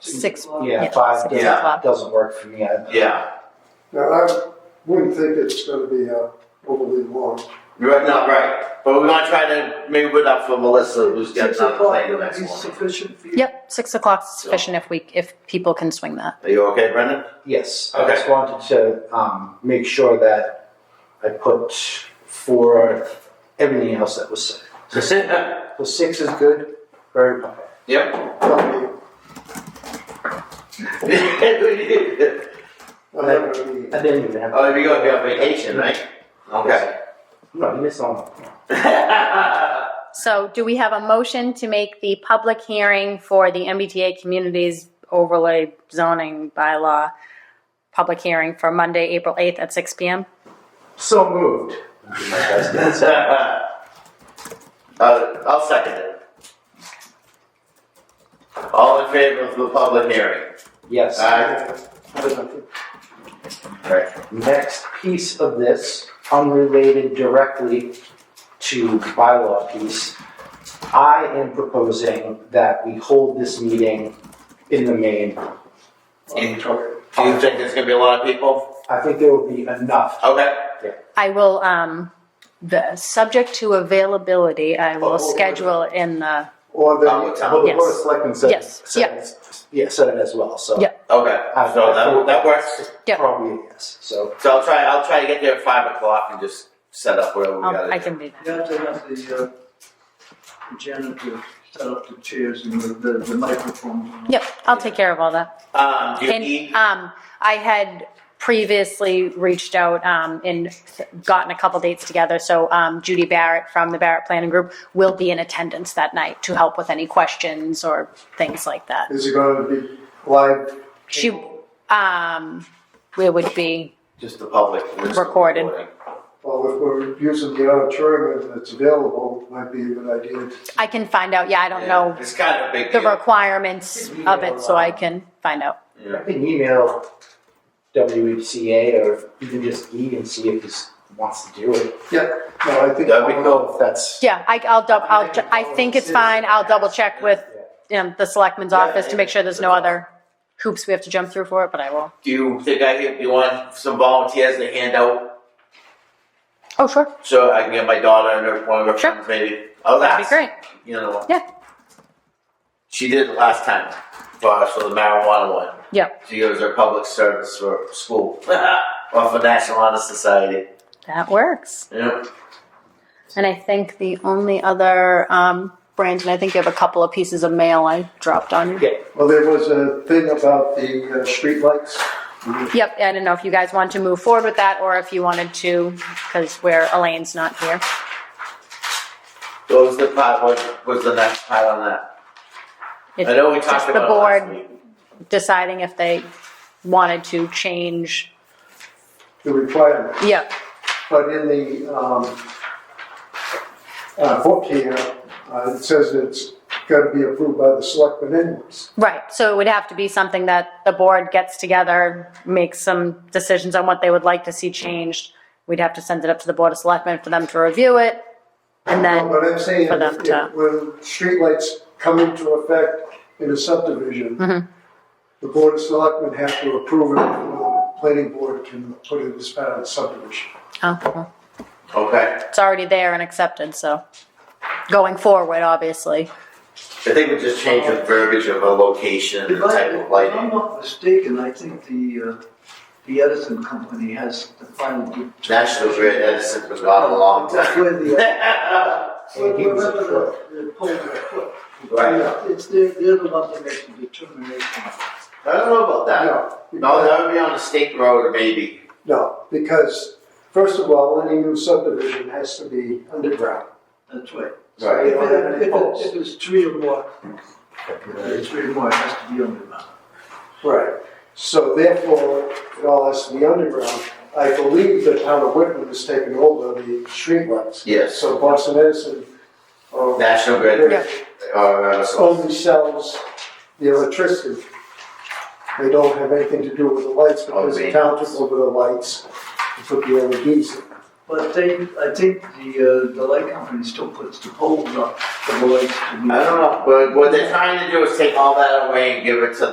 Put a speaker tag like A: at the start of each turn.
A: Six.
B: Yeah, five
A: six
B: doesn't,
A: o'clock.
B: doesn't work for me. I,
C: Yeah,
D: Now, I wouldn't think it's gonna be uh, overly long.
C: you're right, not right. But we want to try to maybe put up for Melissa, who's getting on the plane the next morning.
E: sufficient for you?
A: Yep, six o'clock sufficient if we, if people can swing that.
C: Are you okay, Brendan?
B: yes, I
C: Okay.
B: just wanted to um, make sure that I put for everything else that was said.
C: yep.
B: So six is good. Very okay.
D: I
C: oh,
D: have a meeting.
B: I didn't even have.
C: you going to be on vacation, right? Okay.
B: No, you missed on.
A: So do we have a motion to make the public hearing for the MBTA Communities Overlay Zoning Bylaw public hearing for Monday, April 8th at six PM?
B: So moved.
C: uh, I'll second it. All in favor of the public hearing?
B: Yes.
C: Aye. Right.
B: Next piece of this, unrelated directly to bylaw piece, I am proposing that we hold this meeting in the main.
C: Do you think there's going to be a lot of people?
B: I think there will be enough.
C: Okay.
A: I will, um, the, subject to availability, I
C: Oh, oh,
A: will
C: oh.
A: schedule it in the,
B: Or the,
C: Oh,
B: well,
C: it's-
B: the Board of
A: Yes.
B: Selectmen said.
A: Yes,
B: said
A: yeah.
B: it's- Yeah, said it as well, so.
A: Yeah.
C: Okay.
B: I-
C: So that, that works.
A: Yeah.
B: Probably, a yes, so.
C: So I'll try. I'll try to get there at five o'clock and just set up where we
A: um,
C: got
A: I can do that.
E: You have to have the, uh, the janitor set up the chairs and the, the- the microphones.
A: Yep, I'll take care of all that.
C: Um, do you
A: And
C: need?
A: um, I had previously reached out um, and gotten a couple dates together. So um, Judy Barrett from the Barrett Planning Group will be in attendance that night to help with any questions or things like that.
D: Is it gonna be live?
A: She, um, it would be
C: Just the public. list of
A: Recorded.
C: recording.
D: Well, if we're using the auditorium and it's available, it might be a good idea. to-
A: I can find out. Yeah, I don't
C: Yeah.
A: know
C: It's kind of a big
A: the
C: deal.
A: requirements of it, so I can find out.
B: I can email WHCA or even just E and see if he wants to do it.
D: No, I think.
C: That'd be
D: I'll-
B: know if that's.
A: Yeah, I, I'll dub. I'll. ch- I think it's fine. I'll double check with you know, the selectman's
C: Yeah,
A: office to
C: yeah.
A: make sure there's no other hoops we have to jump through for it. But I will.
C: Do you think I can? Do you want some volunteers to hand out
A: Oh, sure.
C: so I can get my daughter and her one of her
A: Sure.
C: friends maybe? Oh,
A: That'd be great.
C: You know.
A: Yeah.
C: She did it last time for us for the marijuana one.
A: Yeah.
C: She gives her public service for school or for National Honor Society.
A: That works.
C: Yeah.
A: And I think the only other, um, Brandon, I think you have a couple of pieces of mail I dropped on you.
D: Well, there was a thing about the uh, streetlights.
A: Yep, I don't know if you guys want to move forward with that or if you wanted to, because where Elaine's not here.
C: What was the part? What was the next part on that?
A: It's
C: I know we
A: just
C: talked
A: the
C: about it last
A: board
C: week.
A: deciding if they wanted to change.
D: the requirement,
A: Yep,
D: but in the, um, uh, book here, uh, it says it's gotta be approved by the selectmen anyways.
A: right. So it would have to be something that the board gets together, makes some decisions on what they would like to see changed. We'd have to send it up to the Board of Selectmen for them to review it. And then.
D: But I'm saying,
A: for them
D: if-
A: to-
D: if- when streetlights come into effect in a subdivision,
A: Mhm.
D: the board of selectmen have to approve it, the planning board can put it as part of the subdivision.
A: Oh, well,
C: Okay.
A: it's already there and accepted, so going forward, obviously.
C: I think we just change the verbiage of a location and
E: If
C: the
E: I,
C: type of
E: if I'm
C: lighting.
E: not mistaken, I think the, uh, the Edison company has the final. determination.
C: National Grid Edison was gone a long
E: That's
C: time.
E: where the,
B: And he was a
E: remember
B: crook.
E: the, the pole they put.
C: Right.
E: It's, they're, they're the ones that make the determination.
C: I don't know about
E: uh,
C: that. No, that would be on a state road maybe.
D: No, because first of all, any new subdivision has to be underground.
E: That's right.
D: So
C: Right.
D: you
E: If
D: don't have
E: it,
D: any
E: if
D: poles.
E: it, if it's three or more, if it's three or more, it has to be underground.
D: Right, so therefore, it all has to be underground. I believe the town of Whitman has taken over the streetlights.
C: Yes.
D: So Boston Edison, uh,
C: National Grid
A: Yeah.
C: or uh, so-
D: only sells the electricity. They don't have anything to do with the lights because the town took over the lights and put the LEDs in.
E: But they, I think the, uh, the light company still puts the poles up for the lights to be.
C: I don't know, but what they're trying to do is take all that away and give it to